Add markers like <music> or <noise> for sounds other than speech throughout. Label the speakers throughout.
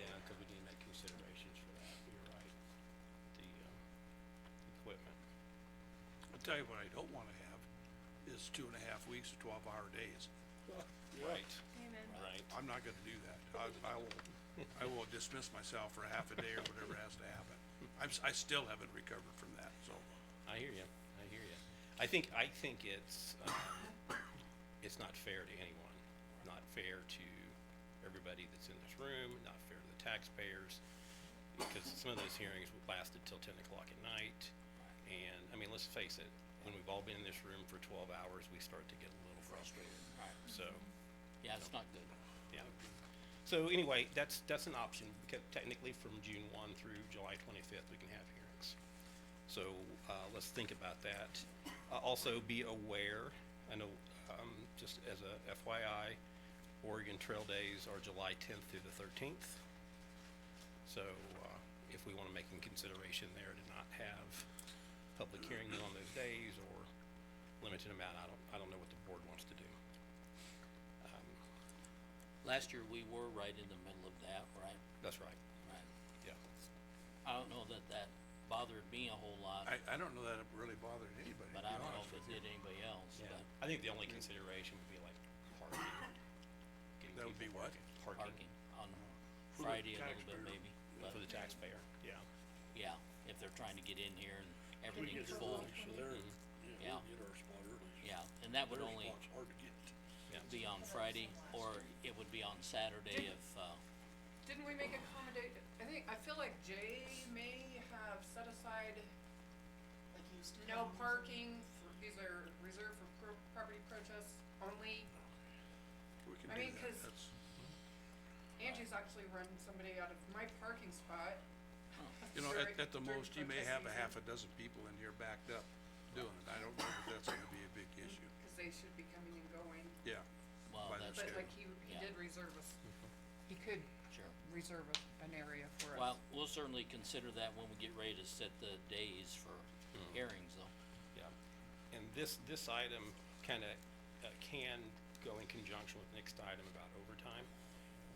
Speaker 1: uh,
Speaker 2: tell you what I don't wanna have is two and a half weeks of twelve-hour days.
Speaker 1: Right,
Speaker 3: Amen.
Speaker 1: right.
Speaker 2: I'm not gonna do that. I, I will, I will dismiss myself for half a day or whatever has to happen. I'm, s- I still haven't recovered from that, so.
Speaker 1: I hear you, I hear you. I think, I think it's, um, it's not fair to anyone, not fair to everybody that's in this room, not fair to the taxpayers. Because some of those hearings lasted till ten o'clock at night, and, I mean, let's face it, when we've all been in this room for twelve hours, we start to get a little frustrated.
Speaker 4: Right.
Speaker 1: So,
Speaker 4: Yeah, it's not good.
Speaker 1: yeah. So anyway, that's, that's an option, because technically from June one through July twenty-fifth, we can have hearings. So, uh, let's think about that. Uh, also be aware, I know, um, just as a FYI, Oregon Trail Days are July tenth through the thirteenth. So, uh, if we wanna make a consideration there to not have public hearings on those days or limited amount, I don't, I don't know what the board wants to do.
Speaker 4: Last year, we were right in the middle of that, right?
Speaker 1: That's right,
Speaker 4: Right.
Speaker 1: yeah.
Speaker 4: I don't know that that bothered me a whole lot,
Speaker 2: I, I don't know that it really bothered anybody, to
Speaker 4: but
Speaker 2: be
Speaker 4: I don't know
Speaker 2: honest
Speaker 4: if
Speaker 2: with you.
Speaker 4: it did anybody else,
Speaker 1: Yeah,
Speaker 4: but
Speaker 1: I think the only consideration would be like parking. Getting
Speaker 2: That would
Speaker 1: people
Speaker 2: be what?
Speaker 1: Parking
Speaker 4: parking on
Speaker 2: For the
Speaker 4: Friday a little bit
Speaker 2: taxpayer.
Speaker 4: maybe, but
Speaker 1: for the taxpayer, yeah.
Speaker 4: yeah, if they're trying to get in here and everything's full, Mm-hmm. yeah. Yeah, and that would only be on Friday, or it would be on Saturday if, uh,
Speaker 5: Didn't we make accommodate, I think, I feel like Jay may have set aside
Speaker 6: like you used to.
Speaker 5: no parking, for these are reserved for pro- property protests only.
Speaker 2: We can
Speaker 5: I
Speaker 2: do
Speaker 5: mean,
Speaker 2: that.
Speaker 5: 'cause-
Speaker 2: That's-
Speaker 5: Angie's actually run somebody out of my parking spot.
Speaker 2: You know, at,
Speaker 5: during-
Speaker 2: at the
Speaker 5: during
Speaker 2: most, you may
Speaker 5: protest
Speaker 2: have a
Speaker 5: season,
Speaker 2: half a dozen people in here backed up doing it. I don't know if that's gonna be a big issue.
Speaker 5: Cause they should be coming and going,
Speaker 2: Yeah,
Speaker 4: well,
Speaker 2: By the
Speaker 4: that's,
Speaker 5: but
Speaker 2: Sure.
Speaker 5: like he, he
Speaker 4: Yeah.
Speaker 5: did reserve us, he could
Speaker 4: sure.
Speaker 5: reserve a- an area for us.
Speaker 4: Well, we'll certainly consider that when we get ready to set the days for
Speaker 2: Hmm.
Speaker 4: hearings though.
Speaker 1: Yeah, and this, this item kinda, uh, can go in conjunction with the next item about overtime.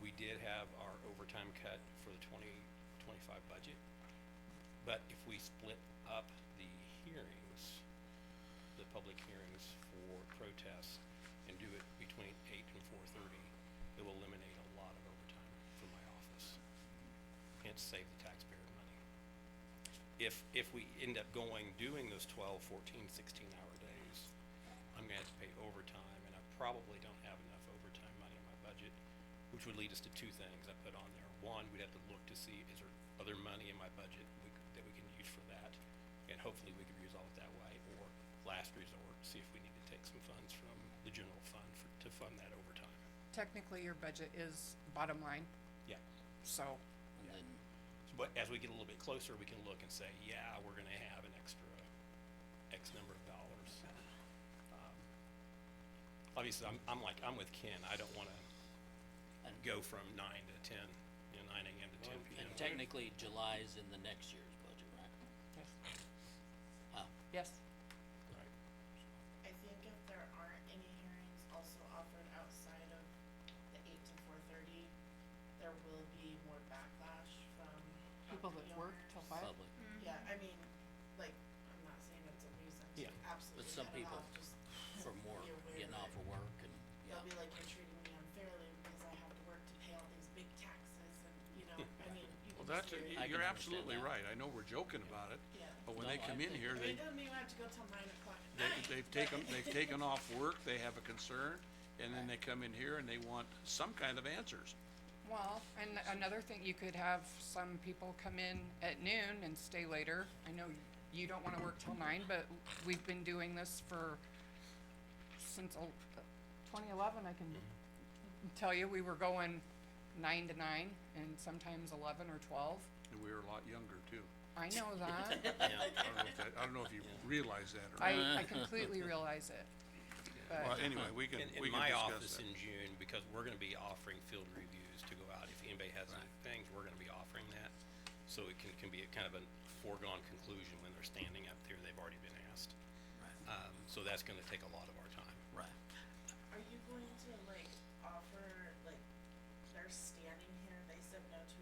Speaker 1: We did have our overtime cut for the twenty twenty-five budget. But if we split up the hearings, the public hearings for protests and do it between eight and four thirty, it will eliminate a lot of overtime from my office. Hence save the taxpayer money if, if we end up going, doing those 12, 14, 16 hour days, I'm gonna have to pay overtime, and I probably don't have enough overtime money in my budget, which would lead us to two things I put on there. One, we'd have to look to see, is there other money in my budget we could- that we can use for that? And hopefully we could resolve it that way, or last resort, see if we need to take some funds from the general fund for, to fund that overtime.
Speaker 5: Technically, your budget is bottom line,
Speaker 1: Yeah.
Speaker 5: so,
Speaker 4: And then,
Speaker 1: But as we get a little bit closer, we can look and say, yeah, we're gonna have an extra X number of dollars. Um, Obviously, I'm, I'm like, I'm with Ken, I don't wanna
Speaker 4: And-
Speaker 1: go from nine to ten, you know, nine AM to ten PM.
Speaker 4: and technically July's in the next year's budget, right?
Speaker 5: yes,
Speaker 1: Right.
Speaker 6: I think if there aren't any hearings also offered outside of the eight to four thirty, there will be more backlash from
Speaker 5: People
Speaker 6: property
Speaker 5: that work
Speaker 6: owners.
Speaker 5: till five?
Speaker 4: Public,
Speaker 6: Yeah, I mean, like, I'm not saying it's a reason to
Speaker 1: Yeah.
Speaker 6: absolutely
Speaker 4: some
Speaker 6: cut it
Speaker 4: people
Speaker 6: off, just
Speaker 4: from work,
Speaker 6: be aware
Speaker 4: getting off
Speaker 6: that
Speaker 4: of work and, yeah.
Speaker 6: They'll be like, you're treating me unfairly because I have to work to pay all these big taxes and, you know, I mean, you
Speaker 2: well,
Speaker 6: can
Speaker 2: that's,
Speaker 6: just hear it.
Speaker 4: I
Speaker 2: you're
Speaker 4: can understand
Speaker 2: absolutely
Speaker 4: that.
Speaker 2: right. I know we're joking about it,
Speaker 6: Yeah.
Speaker 2: but when
Speaker 4: No,
Speaker 2: they
Speaker 4: I
Speaker 2: come in
Speaker 4: think-
Speaker 2: here,
Speaker 6: I
Speaker 2: they,
Speaker 6: mean, it doesn't mean I have to go till nine o'clock at night.
Speaker 2: they, they've taken,
Speaker 6: but-
Speaker 2: they've taken off work, they have a concern, and then they come in here and they want some kind of answers.
Speaker 5: Well, and another thing, you could have some people come in at noon and stay later. I know you don't wanna work till nine, but we've been doing this for, since twenty eleven, I can tell you, we were going nine to nine and sometimes eleven or twelve.
Speaker 2: And we were a lot younger too.
Speaker 5: I know
Speaker 1: <laughs>
Speaker 5: that.
Speaker 2: I don't know if that, I don't know if you realize that or not.
Speaker 5: I, I completely realize it.
Speaker 2: Well,
Speaker 5: But,
Speaker 2: anyway, we can,
Speaker 1: In, in
Speaker 2: we can
Speaker 1: my
Speaker 2: discuss
Speaker 1: office
Speaker 2: that.
Speaker 1: in June, because we're gonna be offering field reviews to go out, if anybody has any things, we're gonna be offering that. So it can, can be a kind of a foregone conclusion when they're standing up there, they've already been asked.
Speaker 4: Right.
Speaker 1: Um, so that's gonna take a lot of our time.
Speaker 4: Right.